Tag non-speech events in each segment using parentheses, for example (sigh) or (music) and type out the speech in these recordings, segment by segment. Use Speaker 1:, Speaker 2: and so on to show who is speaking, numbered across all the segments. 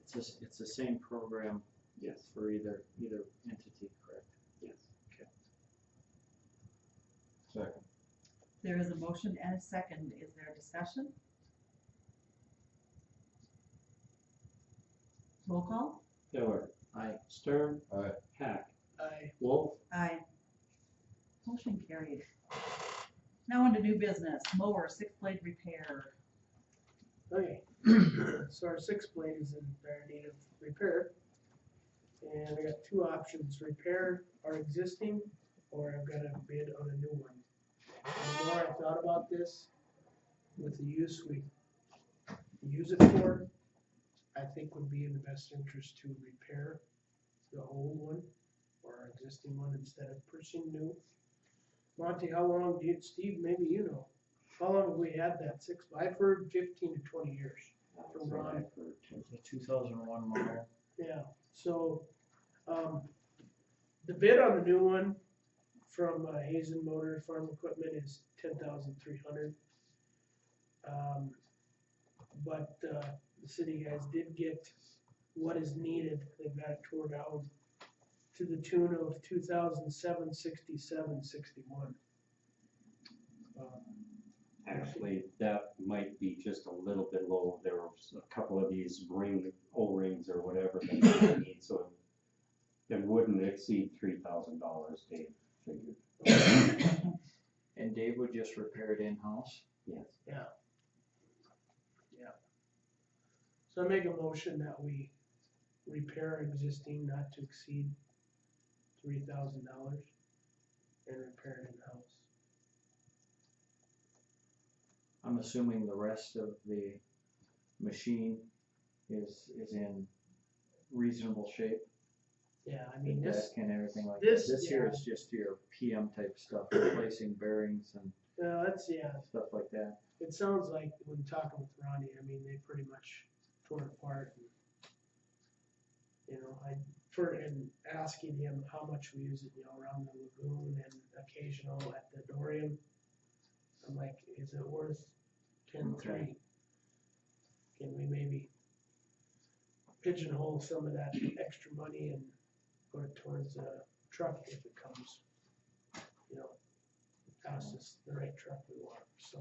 Speaker 1: It's just, it's the same program
Speaker 2: Yes,
Speaker 1: for either, either entity, correct?
Speaker 2: yes.
Speaker 3: Second.
Speaker 4: There is a motion and a second. Is there a discussion? Roll call?
Speaker 1: Miller. Aye. Stern.
Speaker 3: Aye.
Speaker 1: Hack.
Speaker 2: I
Speaker 1: Wolf.
Speaker 4: Aye. Motion carried. Now into new business, mower, six blade repair.
Speaker 2: Okay, (clears throat) so our six blade is in dire need of repair. And I got two options, repair our existing, or I've got a bid on a new one. The more I thought about this, with the use we use it for, I think would be in the best interest to repair the old one or our existing one instead of pushing new. Monty, how long do you, Steve, maybe you know, how long have we had that six, I've heard fifteen to twenty years.
Speaker 1: From Ryan for two- the two thousand and one model.
Speaker 2: Yeah, so, um, the bid on the new one from uh, Hazen Motor Farm Equipment is ten thousand three hundred. Um, but, uh, the city guys did get what is needed, they've got it tore down to the tune of two thousand seven sixty-seven sixty-one. Um,
Speaker 5: Actually, that might be just a little bit low. There was a couple of these ring, O-rings or whatever that they need, so it wouldn't exceed three thousand dollars, Dave figured.
Speaker 1: And Dave would just repair it in-house.
Speaker 5: Yes.
Speaker 2: So I make a motion that we repair existing not to exceed three thousand dollars and repair it in-house.
Speaker 1: I'm assuming the rest of the machine is, is in reasonable shape.
Speaker 2: Yeah, I
Speaker 1: the
Speaker 2: mean, this,
Speaker 1: deck And everything like that.
Speaker 2: this,
Speaker 1: This here
Speaker 2: yeah.
Speaker 1: is just your PM type stuff, replacing bearings and
Speaker 2: well, that's, uh, yeah,
Speaker 1: stuff like that.
Speaker 2: it sounds like when talking with Ronnie, I mean, they pretty much tore it apart. and, You know, I, for, and asking him how much we use it, you know, around the lagoon and occasional at the Dorian. I'm like, is it worth ten three?
Speaker 1: Okay.
Speaker 2: Can we maybe pigeonhole some of that extra money and go towards a truck if it comes? You know, costs us the right truck we want, so.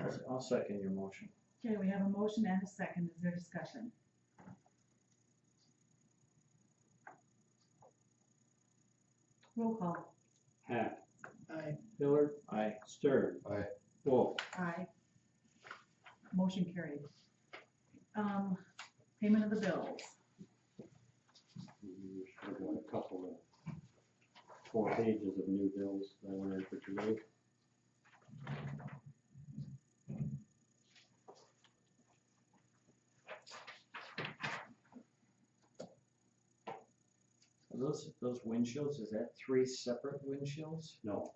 Speaker 1: I'll- I'll second your motion.
Speaker 4: Okay, we have a motion and a second. Is there discussion? Roll call?
Speaker 5: Hack,
Speaker 2: I,
Speaker 1: Miller. Aye.
Speaker 5: Stern.
Speaker 3: Aye.
Speaker 5: Wolf.
Speaker 4: Aye. Motion carried. Um, payment of the bills.
Speaker 5: We should have got a couple of, four pages of new bills that were in for today.
Speaker 1: Are Those, those windshields, is that three separate windshields?
Speaker 5: No,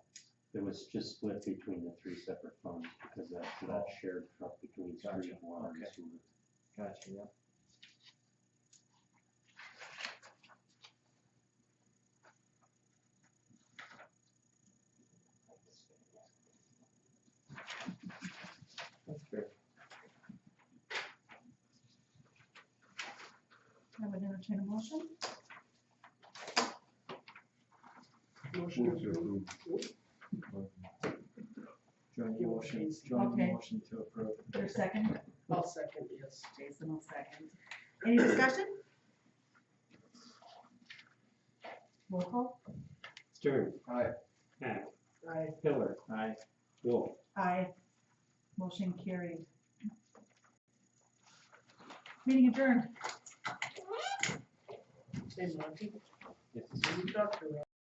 Speaker 5: it was just split between the three separate funds because that's that shared truck between street
Speaker 1: Gotcha,
Speaker 5: water and
Speaker 1: okay.
Speaker 5: sewer.
Speaker 1: Gotcha, yeah. That's fair.
Speaker 4: I would entertain a motion.
Speaker 2: motion
Speaker 3: Move to
Speaker 2: approved.
Speaker 3: approve.
Speaker 1: Joint
Speaker 2: Give a
Speaker 1: motion,
Speaker 2: chance.
Speaker 1: joint
Speaker 4: Okay.
Speaker 1: motion to approve.
Speaker 4: Your second,
Speaker 2: I'll second, yes.
Speaker 4: Jason will second. Any discussion? Roll call?
Speaker 5: Stern.
Speaker 3: Aye.
Speaker 5: Hack,
Speaker 2: I,
Speaker 5: Pillar,
Speaker 1: Aye.
Speaker 5: Wolf.
Speaker 4: Aye. Motion carried. Meeting adjourned.
Speaker 2: say Monty,
Speaker 5: Yes.
Speaker 2: you talked to Ron.